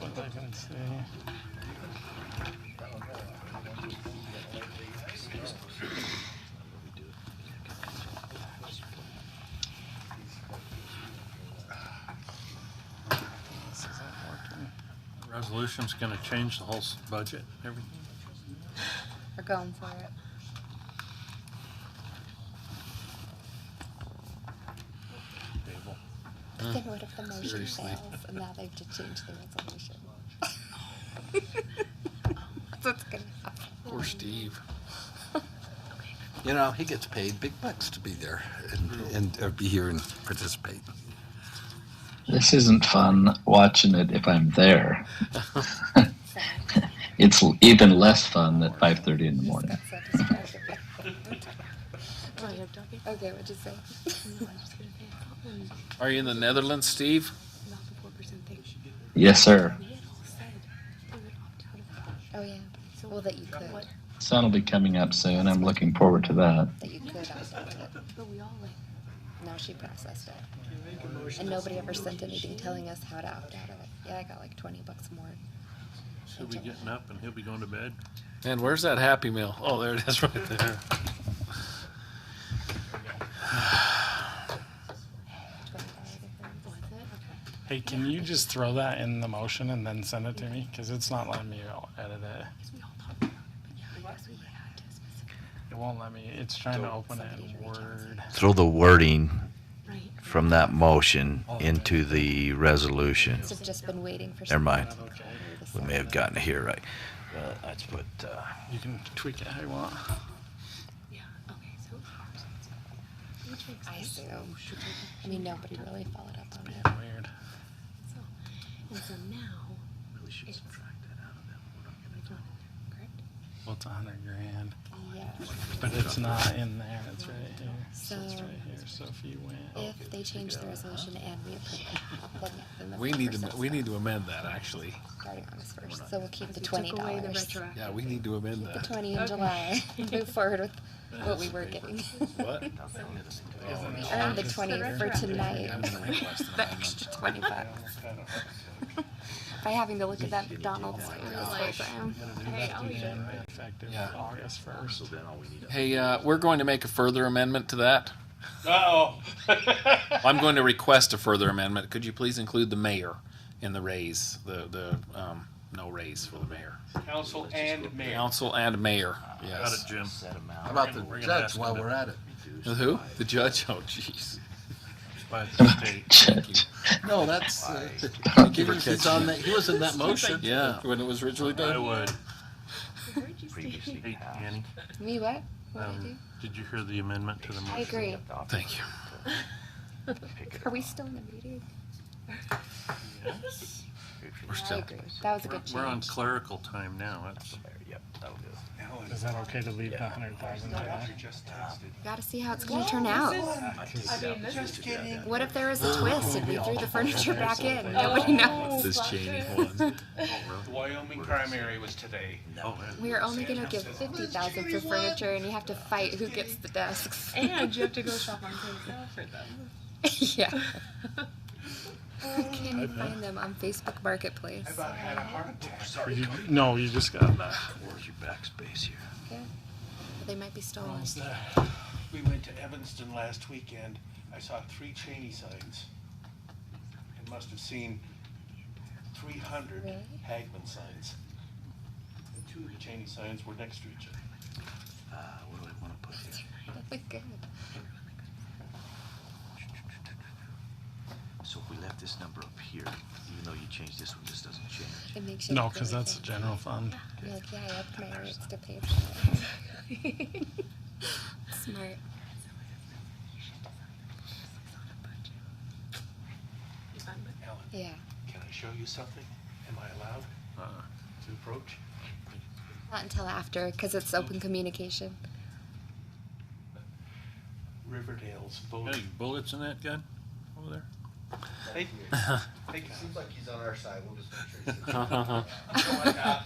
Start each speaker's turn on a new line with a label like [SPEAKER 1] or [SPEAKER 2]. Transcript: [SPEAKER 1] Let's see. This isn't working.
[SPEAKER 2] Resolution's gonna change the whole s- budget, everything.
[SPEAKER 3] We're going for it. Get rid of the motion
[SPEAKER 2] Seriously.
[SPEAKER 3] fails, and now they have to change the resolution. That's what's gonna happen.
[SPEAKER 2] Poor Steve.
[SPEAKER 4] You know, he gets paid big bucks to be there and, and uh, be here and participate.
[SPEAKER 5] This isn't fun watching it if I'm there.
[SPEAKER 3] So,
[SPEAKER 5] It's l- even less fun at 5:30 in the morning.
[SPEAKER 3] that's so distracting.
[SPEAKER 6] Right, I'm talking.
[SPEAKER 3] Okay, what'd you say?
[SPEAKER 6] No, I'm just gonna pay a compliment.
[SPEAKER 2] Are you in the Netherlands, Steve?
[SPEAKER 6] Not the four percent thing.
[SPEAKER 5] Yes, sir.
[SPEAKER 6] We had all said we would opt out of that.
[SPEAKER 3] Oh, yeah. Well, that you could,
[SPEAKER 6] What?
[SPEAKER 5] Sun will be coming up soon. I'm looking forward to that.
[SPEAKER 3] that you could opt out of it.
[SPEAKER 6] But we all like.
[SPEAKER 3] Now she processed it. And nobody ever sent anything telling us how to opt out of it. Yeah, I got like twenty bucks more.
[SPEAKER 2] He'll be getting up and he'll be going to bed. And where's that Happy Meal? Oh, there it is right there.
[SPEAKER 6] Was it? Okay.
[SPEAKER 1] Hey, can you just throw that in the motion and then send it to me? Because it's not letting me edit it.
[SPEAKER 6] Because we all talked about it. But yeah, I guess we had to specifically.
[SPEAKER 1] It won't let me. It's trying to open it in Word.
[SPEAKER 7] Throw the wording
[SPEAKER 6] Right.
[SPEAKER 7] from that motion into the resolution.
[SPEAKER 3] So I've just been waiting for.
[SPEAKER 7] Never mind.
[SPEAKER 3] someone to call me to
[SPEAKER 7] We may
[SPEAKER 3] say-
[SPEAKER 7] have gotten it here right. Uh, Let's put, uh,
[SPEAKER 1] You can tweak it how you want.
[SPEAKER 6] Yeah. Okay. So. Which makes
[SPEAKER 3] I
[SPEAKER 6] sense.
[SPEAKER 3] assume. I mean, nobody really followed up on
[SPEAKER 1] Being
[SPEAKER 3] it.
[SPEAKER 1] weird.
[SPEAKER 6] So, and so now. Really should subtract that out of them. Correct?
[SPEAKER 1] Well, it's a hundred grand,
[SPEAKER 3] Yeah.
[SPEAKER 1] but it's not in there. It's right here. So it's
[SPEAKER 3] So-
[SPEAKER 1] right here. So if you went,
[SPEAKER 3] If they change the resolution and we approve it, then yeah, then the
[SPEAKER 2] We need to,
[SPEAKER 3] 4%
[SPEAKER 2] we need to amend that, actually.
[SPEAKER 3] Starting on this first, so we'll keep the
[SPEAKER 6] We
[SPEAKER 3] twenty
[SPEAKER 6] took away the
[SPEAKER 3] dollars.
[SPEAKER 6] retroactive.
[SPEAKER 2] Yeah, we need to amend
[SPEAKER 3] The
[SPEAKER 2] that.
[SPEAKER 3] twenty in July, move forward with what we were getting.
[SPEAKER 2] What?
[SPEAKER 3] We earned the twenty for tonight
[SPEAKER 2] I'm gonna request an
[SPEAKER 3] The
[SPEAKER 2] amendment.
[SPEAKER 3] extra twenty bucks. By having to look at that McDonald's program.
[SPEAKER 1] then effective
[SPEAKER 2] Yeah.
[SPEAKER 1] August first.
[SPEAKER 2] Hey, uh, we're going to make a further amendment to that. Oh. I'm going to request a further amendment. Could you please include the mayor in the raise, the, the, um, no raise for the mayor?
[SPEAKER 8] Council and mayor.
[SPEAKER 2] Council and mayor, yes.
[SPEAKER 9] Jim.
[SPEAKER 4] How about the judge while we're at it?
[SPEAKER 2] The Who? The judge? Oh, jeez.
[SPEAKER 5] Shit.
[SPEAKER 4] No, that's, uh,
[SPEAKER 2] Thank you for
[SPEAKER 4] he's on
[SPEAKER 2] catching
[SPEAKER 4] that,
[SPEAKER 2] it.
[SPEAKER 4] he was in that motion.
[SPEAKER 2] Yeah, when it was originally
[SPEAKER 9] I
[SPEAKER 2] done.
[SPEAKER 9] would.
[SPEAKER 6] Where'd you say?
[SPEAKER 9] Hey, Annie,
[SPEAKER 3] Me what? What did I do?
[SPEAKER 9] um, did you hear the amendment to the
[SPEAKER 3] I
[SPEAKER 9] motion?
[SPEAKER 3] agree.
[SPEAKER 2] Thank you.
[SPEAKER 3] Are we still in the meeting? I
[SPEAKER 2] We're still,
[SPEAKER 3] agree. That was a good change.
[SPEAKER 9] We're on clerical time now. That's-
[SPEAKER 1] Is that okay to leave the hundred thousand there?
[SPEAKER 3] Gotta see how it's gonna turn out. What if there was a twist and we threw the furniture back in? Nobody knows.
[SPEAKER 2] this Cheney one.
[SPEAKER 8] The Wyoming primary was today.
[SPEAKER 9] Oh, man.
[SPEAKER 3] We're only gonna give fifty thousand for furniture and you have to fight who gets the desks.
[SPEAKER 6] And you have to go shop on Craigslist for them.
[SPEAKER 3] Yeah. Can you find them on Facebook Marketplace?
[SPEAKER 1] You- No, you just got that.
[SPEAKER 9] Where's your backspace here?
[SPEAKER 3] Yeah. They might be stolen.
[SPEAKER 1] Almost there.
[SPEAKER 8] We went to Evanston last weekend. I saw three Cheney signs. And must have seen three hundred
[SPEAKER 3] Really?
[SPEAKER 8] Hagman signs. And two of the Cheney signs were next to each other.
[SPEAKER 9] Uh, what do I wanna put here?
[SPEAKER 3] Good.
[SPEAKER 9] So if we left this number up here, even though you changed this one, this doesn't change.
[SPEAKER 3] It makes you.
[SPEAKER 1] No,
[SPEAKER 3] feel
[SPEAKER 1] because
[SPEAKER 3] like
[SPEAKER 1] that's the general fund.
[SPEAKER 3] you're Like, yeah, I upped my rates to pay for it. Smart.
[SPEAKER 8] Alan,
[SPEAKER 3] Yeah.
[SPEAKER 8] can I show you something? Am I allowed
[SPEAKER 1] Uh-uh.
[SPEAKER 8] to approach?
[SPEAKER 3] Not until after, because it's open communication.
[SPEAKER 8] Riverdale's voting.
[SPEAKER 2] Any bullets in that gun over there?
[SPEAKER 8] They- they got
[SPEAKER 10] Seems like he's on our side. We'll just make sure he's.